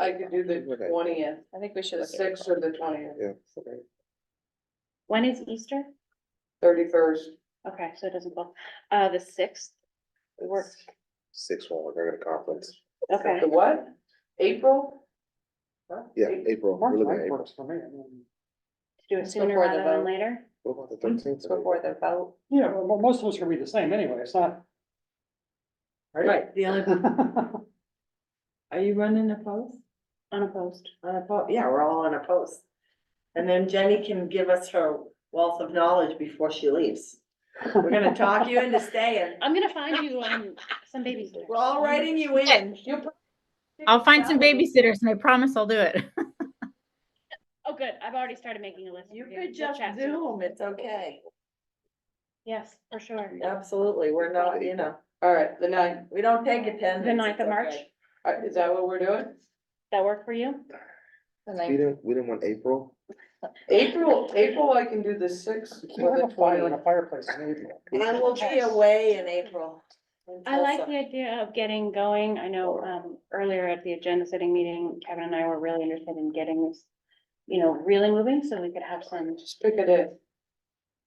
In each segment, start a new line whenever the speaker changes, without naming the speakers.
I could do the
Okay.
twentieth,
I think we should.
the sixth or the twentieth,
Yeah.
When is Easter?
thirty-first.
Okay, so it doesn't fall, uh, the sixth, work,
Six one, we're at a conference.
okay.
The what? April?
Yeah,
Eight-
April, we're looking at April.
Do it
It's
sooner
before the
rather than
vote.
later?
What about the
Mm-hmm.
thirteenth?
before the vote.
Yeah, well, mo- most of us are gonna be the same anyway, it's not.
Right.
The only, are you running a post?
Unopposed.
On a post, yeah, we're all on a post. And then Jenny can give us her wealth of knowledge before she leaves. We're gonna talk you into staying.
I'm gonna find you um some babies.
We're all writing you in.
I'll find some babysitters and I promise I'll do it.
Oh, good, I've already started making a list.
You
for
could
We'll
just
chat soon.
Zoom, it's okay.
Yes, for sure.
Absolutely, we're not, you know,
All right, the ninth,
we don't take attendance.
The ninth of
it's
March,
okay.
Uh, is that what we're doing?
that work for you?
We didn't, we didn't want April.
April, April, I can do the sixth or
We're
the
in a fire in a
twentieth.
fireplace in April.
I will be away in April. in
I like
Tulsa.
the idea of getting going. I know um earlier at the agenda setting meeting, Kevin and I were really interested in getting this. You know, really moving, so we could have some,
Just pick it in.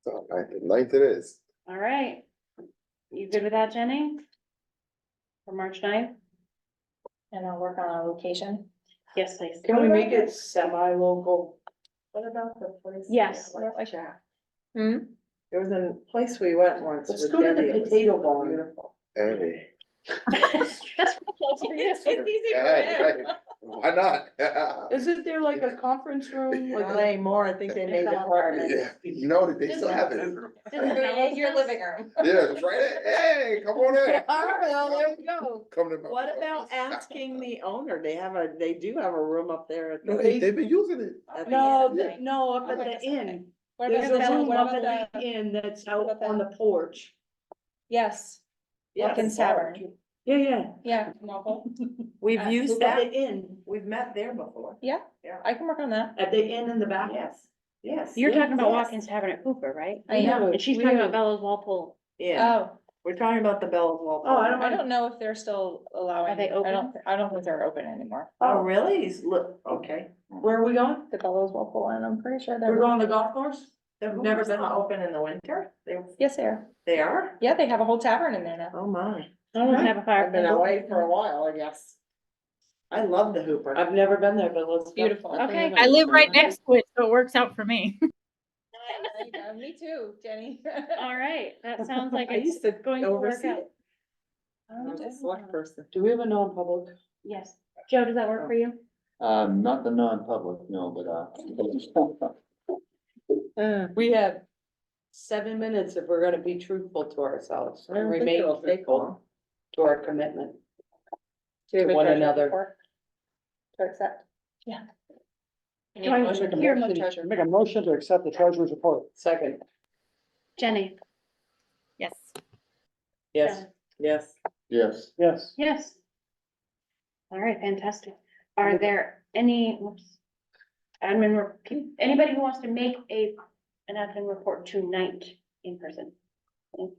So ninth, ninth it is.
all right. You good with that, Jenny? For March ninth?
And I'll work on a location.
Yes, please.
Can we make it semi-local?
What about the place?
Yes.
we went? There
Hmm?
was a place we went once.
Let's
with
go to the
Debbie, it was
potato barn.
Beautiful.
Hey.
That's close for you.
Hey, hey, Why not?
Isn't there like a conference room?
Like
Like,
Lane Moore, I think they made apartments.
Yeah, you know that they still have it.
Doesn't Bella's house-
room.
Yeah, it's right, in. hey, come on in.
there we go.
Come to my.
What about asking the owner? They have a, they do have a room up there. at
No,
the-
they, they've been using it.
at the
no,
end.
the- no, up at the inn.
What
There's a
about
room
the,
up
what
at
about
the
the,
inn that's
what
out
about
on the porch.
yes,
Yes.
Wilkins Tavern,
Yeah, yeah.
yeah, Novel.
We've
Uh,
used
look
that.
at
At the inn, we've met there before.
yeah,
Yeah.
I can work on that.
At the inn in the back. Yes, yes.
You're talking about
yes.
Watkins Tavern at Hooper, right?
I
We have
know,
a-
And she's
we
talking
have-
about Bella's Walpole.
Yeah,
oh,
Uh, we're talking about the Bell's Wall.
Oh, I don't
I don't know if they're still allowing.
they
I
open?
don't, thi- I don't think they're open anymore.
Oh, really? He's look, okay.
Where are we going?
The Bellows will pull in, I'm pretty sure
We're
they're,
going to the golf course?
They've
never
never
been
been open in the winter? They,
yes, they are.
they are?
Yeah, they have a whole tavern in there now.
Oh, my.
I don't have a fire.
I've been away for a while, I guess. I love the Hooper.
I've never been there, but let's. go.
Beautiful.
Okay.
I live right next to it, so it works out for me.
Me too, Jenny.
All right, that sounds like
I
it's
used to
going to work
oversee
out.
it. I was a select person.
Do we have a non-public?
Yes. Joe, does that work for you?
Um, not the non-public, no, but, uh,
We have seven minutes if we're gonna be truthful to ourselves
I don't
and
think
remain
it'll take
faithful
long.
to our commitment.
Do we have a
One
treasurer
another.
report To accept. Yeah.
need a motion to Here, approve the
treasurer.
Make a motion to accept the treasurer's report.
Second,
Jenny?
Yes.
yes.
Joe?
Yes.
yes.
Yes.
Yes. All right, fantastic. Are there any, whoops, admin, rep- can- anybody who wants to make a, an admin report tonight in person? All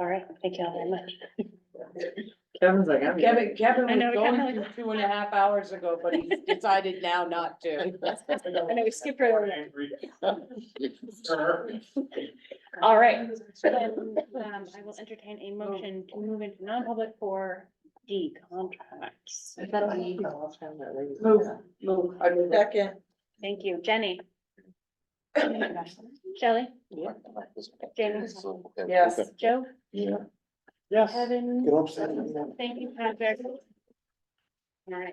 right, thank you all very much.
Kevin's like, I'm.
Kevin, Kevin
I know,
was
we kinda
going to
like-
two and a half hours ago, but he decided now not to.
I know we skipped right over. All right. Um, I will entertain a motion to move into non-public for D contracts.
Move, move. I mean,
Second.
Thank you, Jenny. Shelley, Jamie,
Yes.
Joe,
Yeah.
Yes.
Kevin,
Get upset.
thank you, Patrick.